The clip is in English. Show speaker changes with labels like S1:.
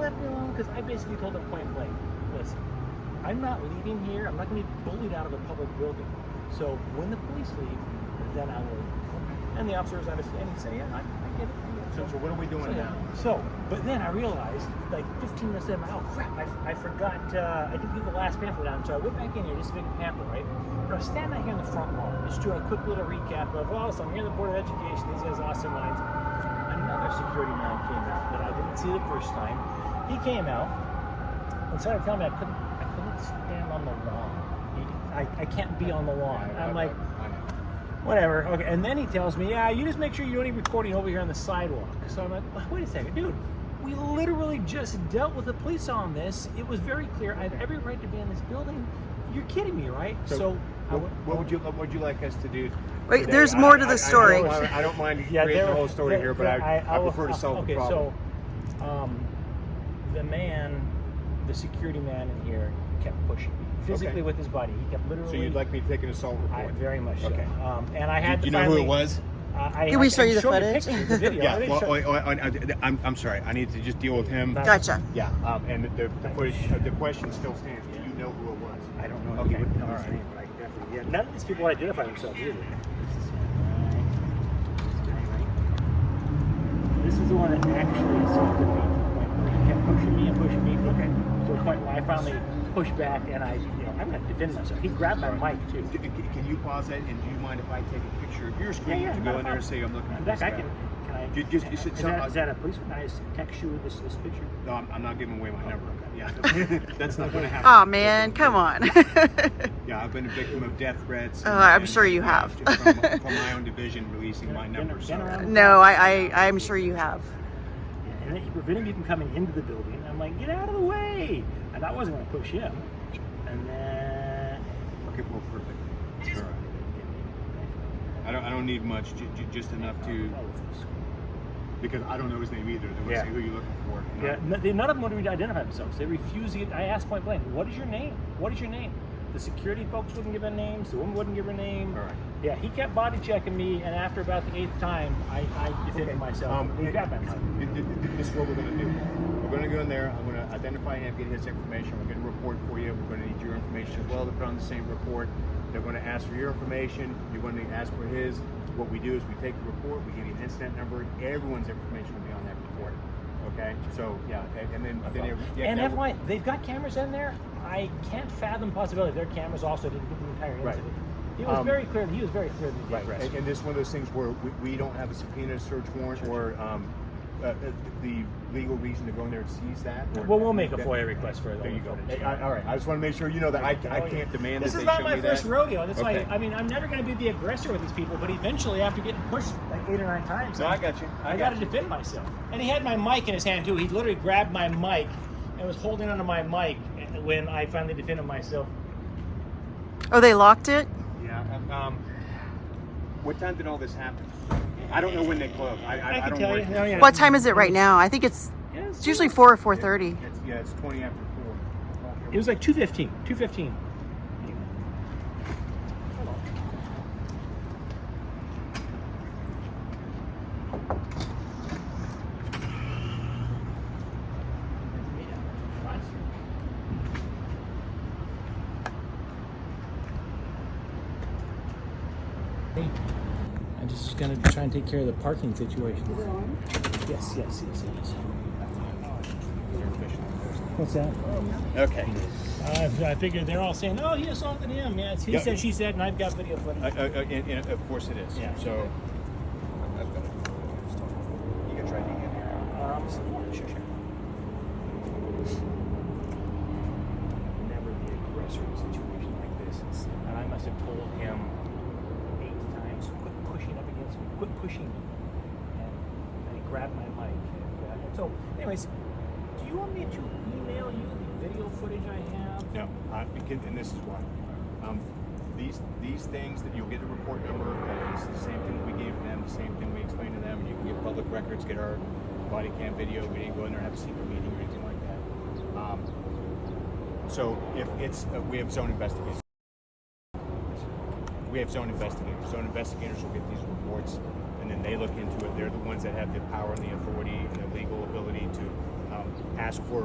S1: me alone because I basically told him point blank, listen, I'm not leaving here. I'm not going to be bullied out of a public building. So when the police leave, then I will. And the officer was understanding. He said, yeah, I, I get it. I get it."
S2: So, so what are we doing
S1: So, yeah.
S2: now?
S1: So, but then I realized, like 15 minutes in, oh crap, I, I forgot, uh, I didn't leave the last pamphlet out. So I went back in here, just a big pamphlet, right? But I was standing out here in the front lawn, just doing a quick little recap of, oh, so I'm here at the Board of Education, these guys awesome lines. Another security man came out that I didn't see the first time. He came out and started telling me I couldn't, I couldn't stand on the lawn. He- I, I can't be on the lawn. I'm like,
S2: I know.
S1: Whatever. Okay. And then he tells me, yeah, you just make sure you don't eat recording over here on the sidewalk. So I'm like, wait a second, dude. We literally just dealt with the police on this. It was very clear. I have every right to be in this building. You're kidding me, right? So, I
S2: what,
S1: went-
S2: what would you what would you like us to do?
S3: Wait,
S2: today?
S3: there's
S2: I-
S3: more to
S2: I-
S3: the
S2: I know
S3: story.
S2: I, I don't mind
S1: uh, yeah,
S2: creating
S1: there-
S2: the whole story
S1: there-
S2: here, but
S1: there-
S2: I, I,
S1: will- uh,
S2: prefer to solve
S1: okay,
S2: the problem.
S1: so um, the man, the security man in here, kept pushing me physically
S2: Okay.
S1: with his body. He kept literally.
S2: So, you'd like me to take an assault
S1: I,
S2: report?
S1: very much. so.
S2: Okay.
S1: Um, and I had.
S4: Do you
S1: to
S4: know who
S1: finally,
S4: it was?
S1: Uh, I,
S3: Can we
S1: I
S3: show you the
S1: showed
S3: footage?
S1: picture, the video. I
S2: yeah.
S1: didn't
S2: Well, oh,
S1: show-
S2: I, I, I, am I'm sorry. I need to just deal with him.
S1: That-
S3: Gotcha.
S2: Yeah. Um, and the the, question, the question still stands. Do you know who it was?
S1: I don't know. if
S2: Okay.
S1: he would know
S2: All
S1: his
S2: right.
S1: name, but I definitely- yeah, none of these people identify themselves either. This is the one that actually assaulted me to the point where he kept pushing me and pushing me okay. to a point where I finally pushed back and I, you know, I'm going to defend myself. He grabbed my mic too.
S2: D- c- Can you pause that? And do you mind if I take a picture of your
S1: Yeah,
S2: screen
S1: yeah,
S2: to
S1: not
S2: go
S1: a
S2: in
S1: problem.
S2: there and say I'm looking
S1: In
S2: for
S1: fact,
S2: this
S1: I
S2: guy?
S1: can, can I,
S2: You just- you said
S1: is,
S2: some-
S1: that, is that a police? Can I just text you this, this picture?
S2: No, I'm, I'm not giving away my number. Yeah, that's not going to happen.
S3: Oh man, come on.
S2: Yeah, I've been a victim of death threats.
S3: Oh, I'm sure you have.
S2: from, from my own division releasing my number. So.
S3: no, I, I I'm sure you have.
S1: And then he prevented me from coming into the building. I'm like, get out of the way. And I wasn't going to push him. And then.
S2: Okay, well, perfect. It's all right. I don't, I don't need much, j- j- just enough to, because I don't know his name either. They would
S1: Yeah.
S2: say who you looking for. you know?
S1: Yeah, n- they, none of them wanted me to identify themselves. They refused. to get- I asked point blank, "What is your name? What is your name?" The security folks wouldn't give a name. The woman wouldn't give her name.
S2: All right.
S1: Yeah, he kept body checking me, and after about the eighth time, I, I defended myself.
S2: Um,
S1: he grabbed my mic.
S2: th- th- th- This is what we're gonna do. We're gonna go in there, I'm gonna identify him, get his information, we're gonna report for you, we're gonna need your information as well to put on the same report. They're gonna ask for your information, you're gonna ask for his. What we do is we take the report, we give you an incident number, everyone's information will be on that report, okay? So, yeah, and and then, then. every- yeah,
S1: and
S2: that-
S1: FYI, they've got cameras in there. I can't fathom the possibility their cameras also didn't do the entire
S2: Right.
S1: incident. He was
S2: Um,
S1: very clear. He was very clear that he
S2: Right,
S1: did
S2: and, and this is one of those things where we, we don't have a subpoena, search warrant, or, um, uh, uh, the legal reason to go in there and seize that. or-
S1: Well, we'll make a
S2: that-
S1: FOIA request for it. Oh,
S2: There you go. I- I- all right, I just want to make sure you know that I, I can't demand
S1: This
S2: that
S1: is
S2: they
S1: not
S2: show
S1: my
S2: me
S1: first
S2: that.
S1: rodeo. That's why
S2: Okay.
S1: I mean I'm never going to be the aggressor with these people, but eventually after getting pushed like eight or nine times,
S2: No, I got you.
S1: I, got to defend myself. And he had my mic in his hand too. He literally grabbed my mic and was holding onto my mic when I finally defended myself.
S3: Oh, they locked it.
S2: Yeah. Um, what time did all this happen? I don't know when they closed. I, I,
S1: I
S2: I,
S1: can
S2: don't
S1: tell
S2: work
S1: you.
S2: here.
S1: No, yeah.
S3: What time is it right now? I think it's
S1: Yeah,
S3: it's usually four or four thirty.
S2: It's, yeah, it's twenty after four.
S1: It was like 215. 215. Hey, I'm just gonna try and take care of the parking situation. Yes, yes, yes, yes. What's that?
S2: Okay.
S1: I, I figured they're all saying, "Oh, he assaulted him." Yeah, it's he
S2: Yeah.
S1: said, she said, and I've got video footage.
S2: Uh, uh, uh, and, and of course it is.
S1: Yeah.
S2: So. I've got it. You can try to get here.
S1: Um, sure, sure. Never be aggressor in a situation like this. It's- And I must have told him eight times, "Quit pushing up against me. Quit pushing me." And, and he grabbed my mic. And, uh, and so, anyways, do you want me to email you the video footage I have?
S2: No, I, begin- and this is why. Um, these these things that you'll get the report number. It's the same thing we gave them. The same thing we explained to them. You can get public records. Get our body cam video. We didn't go in there and have a secret meeting or anything like that. Um, so if it's uh, we have zone investigators. We have zone investigators. Zone investigators will get these reports, and then they look into it. They're the ones that have the power and the authority and the legal ability to um, ask for